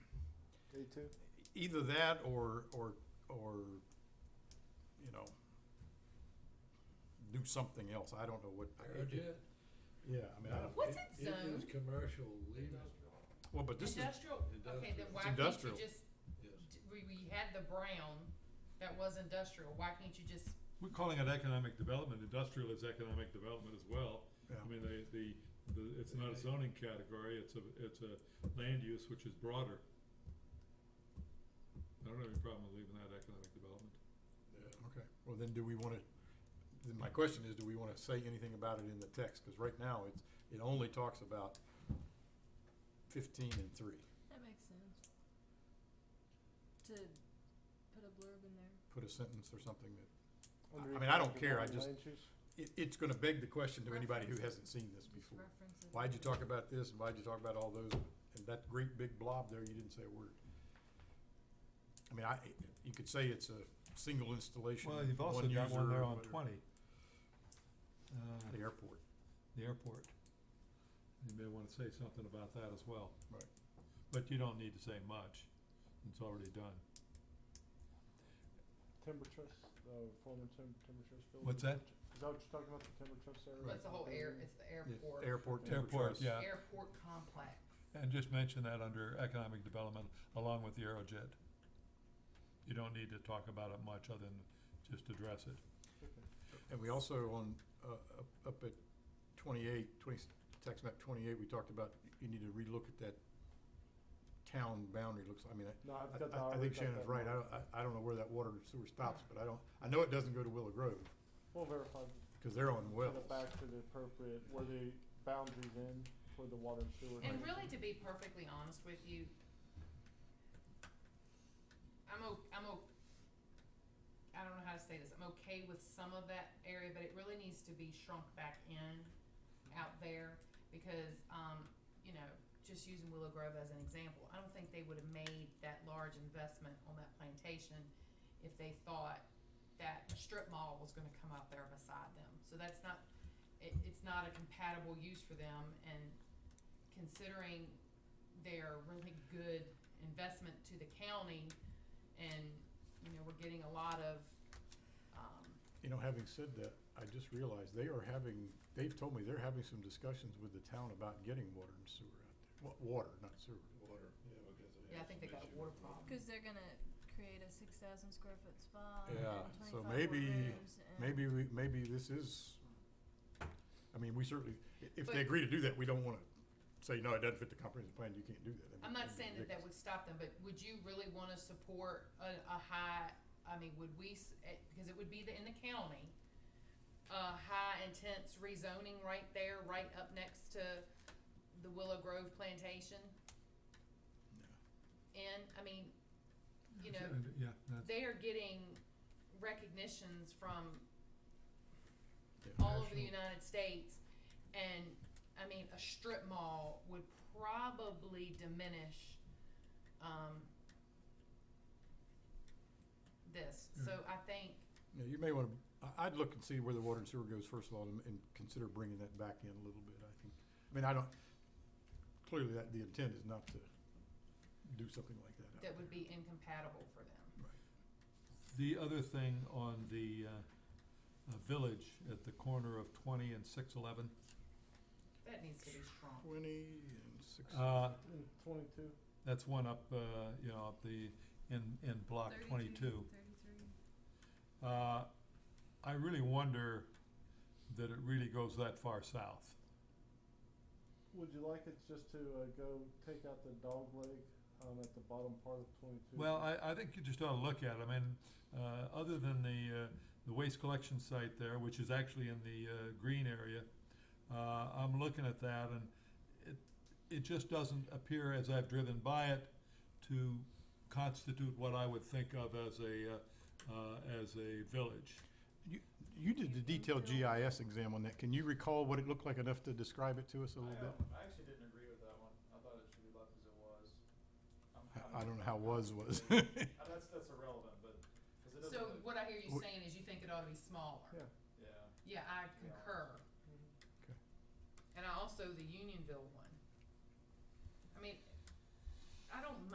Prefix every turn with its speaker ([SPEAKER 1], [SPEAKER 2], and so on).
[SPEAKER 1] A two?
[SPEAKER 2] either that or, or, or, you know, do something else. I don't know what. I- it-
[SPEAKER 3] Aerojet,
[SPEAKER 2] Yeah, I mean, I don't,
[SPEAKER 4] What's
[SPEAKER 3] it- it
[SPEAKER 4] it
[SPEAKER 3] is
[SPEAKER 4] zoned?
[SPEAKER 3] commercial, leave it,
[SPEAKER 2] well, but this is,
[SPEAKER 4] Industrial, okay, then
[SPEAKER 3] Industrial.
[SPEAKER 2] It's
[SPEAKER 4] why can't you
[SPEAKER 2] industrial.
[SPEAKER 4] just,
[SPEAKER 3] yes.
[SPEAKER 4] d- we, we had the brown, that was industrial, why can't you just,
[SPEAKER 5] We're calling it economic development, industrial is economic development as well. I mean, they, the, the, it's not a zoning category, it's a, it's a land use which is broader. I don't have any problem with leaving that economic development.
[SPEAKER 3] Yeah.
[SPEAKER 2] okay. Well, then do we wanna, then my question is, do we wanna say anything about it in the text? Cause right now, it's, it only talks about fifteen and three.
[SPEAKER 6] That makes sense. To put a blurb in there.
[SPEAKER 2] Put a sentence or something that, I mean, I don't care, I just- it, it's gonna beg the question to anybody who hasn't seen this
[SPEAKER 4] just
[SPEAKER 2] before.
[SPEAKER 4] reference it?
[SPEAKER 2] Why'd you talk about this and why'd you talk about all those? And that great big blob there, you didn't say a word. I mean, I, you could say it's a single installation,
[SPEAKER 7] Well, you've also
[SPEAKER 2] one user.
[SPEAKER 7] got one there on
[SPEAKER 2] whatever,
[SPEAKER 7] twenty. Uh,
[SPEAKER 2] The airport.
[SPEAKER 7] the airport.
[SPEAKER 5] You may wanna say something about that as well.
[SPEAKER 2] Right.
[SPEAKER 5] But you don't need to say much, it's already done.
[SPEAKER 1] Timber trust, uh, former tim- timber trust building.
[SPEAKER 5] What's that?
[SPEAKER 1] Is that what you're talking about, the timber trust area?
[SPEAKER 4] But it's the whole air, it's the airport,
[SPEAKER 2] Airport, timber trust.
[SPEAKER 5] Airport, yeah,
[SPEAKER 4] airport complex.
[SPEAKER 5] and just mention that under economic development along with the Aerojet. You don't need to talk about it much other than just address it.
[SPEAKER 1] Okay.
[SPEAKER 2] And we also on, uh, up, up at twenty-eight, twenty, tax map twenty-eight, we talked about, you need to relook at that town boundary, looks, I mean, I-
[SPEAKER 1] No, I've
[SPEAKER 2] I-
[SPEAKER 1] got the.
[SPEAKER 2] I, I
[SPEAKER 1] I've
[SPEAKER 2] think
[SPEAKER 1] got that
[SPEAKER 2] Shannon's right, I
[SPEAKER 1] marked.
[SPEAKER 2] don't, I, I don't know where that water and sewer stops, but I don't, I know it doesn't go to Willow Grove,
[SPEAKER 1] We'll verify,
[SPEAKER 2] cause they're on
[SPEAKER 1] send
[SPEAKER 2] wells.
[SPEAKER 1] it back to the appropriate, where the boundaries end for the water and sewer.
[SPEAKER 4] And really, to be perfectly honest with you, I'm o- I'm o- I don't know how to say this. I'm okay with some of that area, but it really needs to be shrunk back in, out there, because um, you know, just using Willow Grove as an example, I don't think they would have made that large investment on that plantation if they thought that a strip mall was going to come out there beside them. So that's not. It, it's not a compatible use for them, and considering their really good investment to the county and, you know, we're getting a lot of, um,
[SPEAKER 2] You know, having said that, I just realized they are having, they've told me they're having some discussions with the town about getting water and sewer out there. Wa- water, not sewer.
[SPEAKER 4] Oh,
[SPEAKER 3] Water, yeah, because they
[SPEAKER 4] yeah, I
[SPEAKER 3] have
[SPEAKER 4] think
[SPEAKER 3] some
[SPEAKER 4] they got a
[SPEAKER 3] issue
[SPEAKER 4] water
[SPEAKER 3] with
[SPEAKER 4] problem.
[SPEAKER 6] Because they're gonna create a six thousand square foot spa
[SPEAKER 2] Yeah,
[SPEAKER 6] and
[SPEAKER 2] so
[SPEAKER 6] twenty-five
[SPEAKER 2] maybe-
[SPEAKER 6] boardrooms and.
[SPEAKER 2] Maybe we, maybe this is, I mean, we certainly, i- if
[SPEAKER 4] But-
[SPEAKER 2] they agree to do that, we don't wanna say, no, it doesn't fit the comprehensive plan, you can't do that. I mean,
[SPEAKER 4] I'm not
[SPEAKER 2] that'd be
[SPEAKER 4] saying that that
[SPEAKER 2] ridiculous.
[SPEAKER 4] would stop them, but would you really wanna support a, a high, I mean, would we, s- eh, because it would be the, in the county, a high intense rezoning right there, right up next to the Willow Grove Plantation? And, I mean, you know,
[SPEAKER 5] And, Yeah, that's.
[SPEAKER 4] they are getting recognitions from
[SPEAKER 2] Yeah.
[SPEAKER 4] all over the United States, and I mean, a strip mall would probably diminish um, this. So I think
[SPEAKER 2] Yeah, you may wanna, I, I'd look and see where the water and sewer goes first of all, and, and consider bringing that back in a little bit, I think. I mean, I don't, clearly that, the intent is not to do something like that out
[SPEAKER 4] that
[SPEAKER 2] there.
[SPEAKER 4] would be incompatible for them.
[SPEAKER 5] The other thing on the, uh, uh, village at the corner of twenty and six eleven,
[SPEAKER 4] That needs to be strong.
[SPEAKER 2] Twenty and six.
[SPEAKER 5] uh,
[SPEAKER 1] And Twenty-two.
[SPEAKER 5] that's one up, uh, you know, up the, in, in block twenty-two.
[SPEAKER 6] Thirty-three.
[SPEAKER 5] Uh, I really wonder that it really goes that far south.
[SPEAKER 1] Would you like it just to, uh, go take out the dog leg, um, at the bottom part of twenty-two?
[SPEAKER 5] Well, I, I think you just ought to look at it, I mean, uh, other than the, uh, the waste collection site there, which is actually in the, uh, green area, uh, I'm looking at that and it, it just doesn't appear as I've driven by it to constitute what I would think of as a, uh, uh, as a village.
[SPEAKER 2] You did the detailed GIS exam on that. Can you recall what it looked like enough to describe it to us a little bit?
[SPEAKER 8] I actually didn't agree with that one. I thought it should be left as it was. I'm
[SPEAKER 2] I- I
[SPEAKER 8] having-
[SPEAKER 2] don't know how was was.
[SPEAKER 8] Uh, That's, that's irrelevant, but, cause it
[SPEAKER 4] So
[SPEAKER 8] doesn't, look-
[SPEAKER 4] what I hear you
[SPEAKER 2] Wh-
[SPEAKER 4] saying is you think it ought to be smaller.
[SPEAKER 1] Yeah.
[SPEAKER 8] yeah.
[SPEAKER 4] Yeah, I concur.
[SPEAKER 2] Okay.
[SPEAKER 4] And I also the Unionville one. I mean, I don't